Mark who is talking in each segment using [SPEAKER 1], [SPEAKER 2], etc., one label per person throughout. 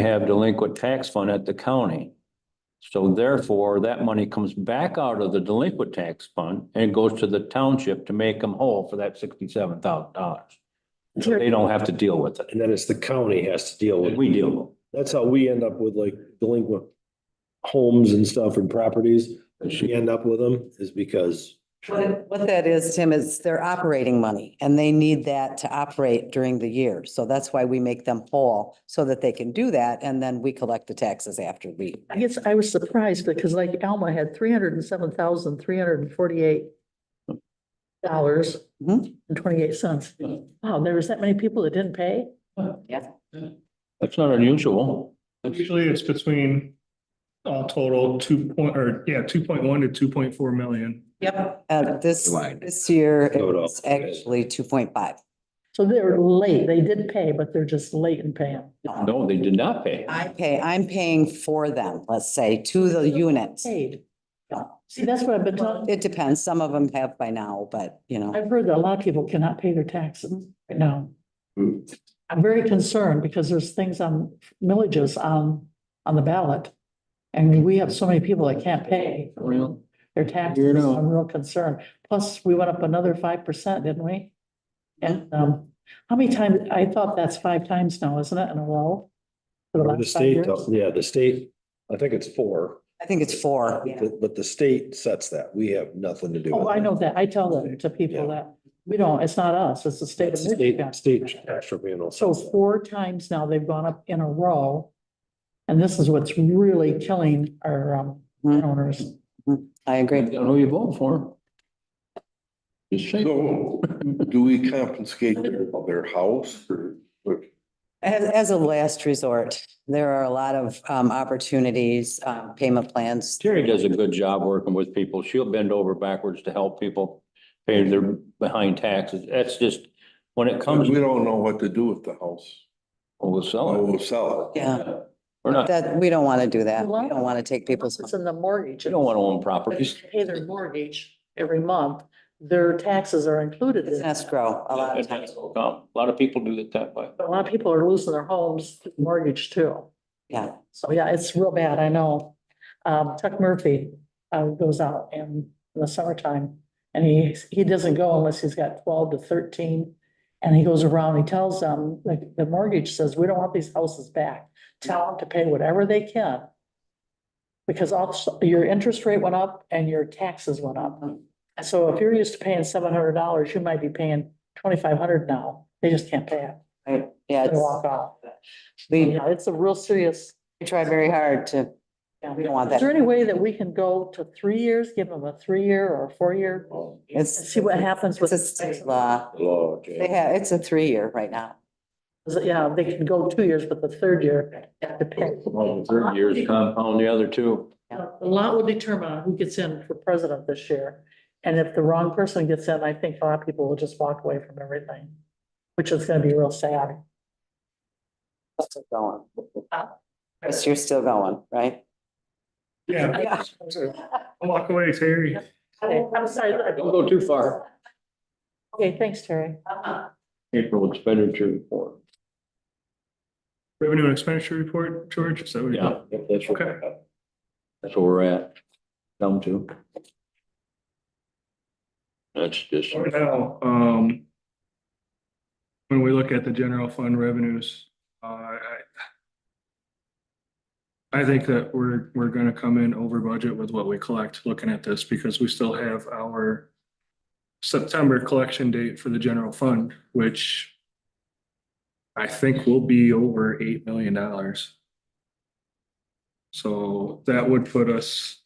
[SPEAKER 1] have delinquent tax fund at the county. So therefore, that money comes back out of the delinquent tax fund and goes to the township to make them whole for that sixty-seven thousand dollars. So they don't have to deal with it.
[SPEAKER 2] And then it's the county has to deal with. it.
[SPEAKER 1] We deal with
[SPEAKER 2] That's how we end up with like delinquent homes and stuff and properties.
[SPEAKER 1] it.
[SPEAKER 2] We end up with them is because
[SPEAKER 3] What what that is, Tim, is their operating money and they need that to operate during the year. So that's why we make them whole so that they can do that and then we collect the taxes after we.
[SPEAKER 4] I guess I was surprised because like Alma had three hundred and seven thousand, three hundred and forty-eight dollars and
[SPEAKER 3] Mhm.
[SPEAKER 4] twenty-eight cents. Wow, there was that many people that didn't pay?
[SPEAKER 1] That's not unusual.
[SPEAKER 5] Usually it's between all total two point, or yeah, two point one to two point four million.
[SPEAKER 3] Yep. Uh, this,
[SPEAKER 2] Right.
[SPEAKER 3] this year,
[SPEAKER 2] Showed up.
[SPEAKER 3] it's actually two point five.
[SPEAKER 4] So they're late. They did pay, but they're just late in paying.
[SPEAKER 1] No, they did not pay.
[SPEAKER 3] I pay, I'm paying for them, let's say, to the unit.
[SPEAKER 4] Paid. See, that's what I've been talking.
[SPEAKER 3] It depends. Some of them have by now, but you know.
[SPEAKER 4] I've heard that a lot of people cannot pay their taxes right now. I'm very concerned because there's things on millages on, on the ballot. And we have so many people that can't pay
[SPEAKER 1] Real.
[SPEAKER 4] their taxes.
[SPEAKER 1] Weirdo.
[SPEAKER 4] I'm real concerned. Plus, we went up another five percent, didn't we? And, um, how many times, I thought that's five times now, isn't it, in a row? For
[SPEAKER 2] the
[SPEAKER 4] last five
[SPEAKER 2] state,
[SPEAKER 4] years?
[SPEAKER 2] does- yeah, the state, I think it's four.
[SPEAKER 3] I think it's four.
[SPEAKER 2] But but the state sets that. We have nothing to do with it.
[SPEAKER 4] Oh, I know that. I tell that to people
[SPEAKER 2] Yeah.
[SPEAKER 4] that, we don't, it's not us, it's the state
[SPEAKER 2] It's
[SPEAKER 4] of
[SPEAKER 2] the State,
[SPEAKER 4] Michigan.
[SPEAKER 2] state tax tribunal.
[SPEAKER 4] So
[SPEAKER 2] sets that.
[SPEAKER 4] four times now they've gone up in a row. And this is what's really killing our um
[SPEAKER 1] Hmm.
[SPEAKER 3] Mhm.
[SPEAKER 4] owners.
[SPEAKER 3] I agree.
[SPEAKER 1] Depends on who you vote for. Just say.
[SPEAKER 6] So do we confiscate their, their house or?
[SPEAKER 3] As, as a last resort, there are a lot of, um, opportunities, um, payment plans.
[SPEAKER 1] Terry does a good job working with people. She'll bend over backwards to help people pay their behind taxes. That's just, when it comes,
[SPEAKER 6] We don't know what to do with the house.
[SPEAKER 1] we'll
[SPEAKER 6] Oh,
[SPEAKER 1] sell it.
[SPEAKER 6] we'll sell it.
[SPEAKER 3] Yeah,
[SPEAKER 1] We're not,
[SPEAKER 3] that, we don't want to do that. We don't want to take people's.
[SPEAKER 4] It's in the mortgage.
[SPEAKER 1] we don't want to own
[SPEAKER 4] But
[SPEAKER 1] properties.
[SPEAKER 4] if they Pay their mortgage every month, their taxes are included.
[SPEAKER 3] It's
[SPEAKER 4] in
[SPEAKER 3] an
[SPEAKER 4] that.
[SPEAKER 3] escrow a lot of times.
[SPEAKER 1] A lot of people do it that way.
[SPEAKER 4] But A lot of people are losing their homes through mortgage too.
[SPEAKER 3] Yeah.
[SPEAKER 4] So yeah, it's real bad, I know. Um, Chuck Murphy, uh, goes out in the summertime and he, he doesn't go unless he's got twelve to thirteen. And he goes around, he tells them, like, the mortgage says, we don't want these houses back. Tell them to pay whatever they can. Because also your interest rate went up and your taxes went up. So if you're used to paying seven hundred dollars, you might be paying twenty-five hundred now. They just can't pay it.
[SPEAKER 3] Right. Yeah.
[SPEAKER 4] They
[SPEAKER 3] it's-
[SPEAKER 4] walk off.
[SPEAKER 3] We
[SPEAKER 4] Yeah, it's a real serious.
[SPEAKER 3] we try very hard to,
[SPEAKER 4] Yeah,
[SPEAKER 3] we don't want
[SPEAKER 4] Is there
[SPEAKER 3] that.
[SPEAKER 4] any way that we can go to three years, give them a three-year or a four-year?
[SPEAKER 3] It's,
[SPEAKER 4] See what happens with.
[SPEAKER 3] it's a state law.
[SPEAKER 2] Oh,
[SPEAKER 6] Law, Jane.
[SPEAKER 3] They have, it's a three-year right now.
[SPEAKER 4] Yeah, they can go two years, but the third year, they have to pay.
[SPEAKER 1] Well, the Third years compound the other two.
[SPEAKER 4] A lot will determine on who gets in for president this year. And if the wrong person gets in, I think a lot of people will just walk away from everything, which is gonna be real sad.
[SPEAKER 3] It's still going. Chris, you're still going, right?
[SPEAKER 5] Yeah,
[SPEAKER 3] Yeah.
[SPEAKER 5] walk away, Terry.
[SPEAKER 4] I'm sorry.
[SPEAKER 1] Don't go too far.
[SPEAKER 4] Okay, thanks, Terry.
[SPEAKER 1] April expenditure report.
[SPEAKER 5] Revenue and expenditure report, George, is that what
[SPEAKER 1] Yeah,
[SPEAKER 5] you're?
[SPEAKER 1] that's right.
[SPEAKER 5] Okay.
[SPEAKER 1] That's where we're at. Down to. That's just.
[SPEAKER 5] Right now, um. When we look at the general fund revenues, uh, I. I think that we're, we're gonna come in over budget with what we collect, looking at this, because we still have our. September collection date for the general fund, which. I think will be over eight million dollars. So that would put us,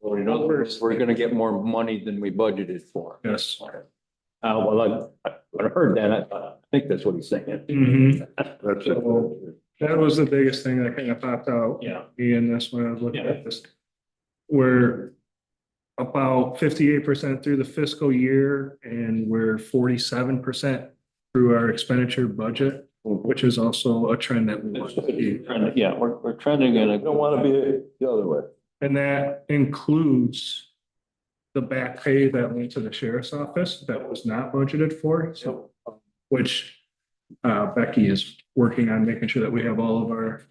[SPEAKER 1] Well, in other words, we're gonna get more money than we budgeted for.
[SPEAKER 5] yes.
[SPEAKER 1] Uh, well, I, I heard that, I, I think that's what he's saying.
[SPEAKER 5] Mhm.
[SPEAKER 6] That's it.
[SPEAKER 5] That was the biggest thing that kind of popped out.
[SPEAKER 1] Yeah.
[SPEAKER 5] in this when I was looking at this. We're about fifty-eight percent through the fiscal year and we're forty-seven percent through our expenditure budget, which is also a trend that we want to see.
[SPEAKER 1] Yeah, we're, we're trending in a.
[SPEAKER 6] We don't want to be the other way.
[SPEAKER 5] And that includes the back pay that went to the sheriff's office that was not budgeted for, so, which uh, Becky is working on making sure that we have all of our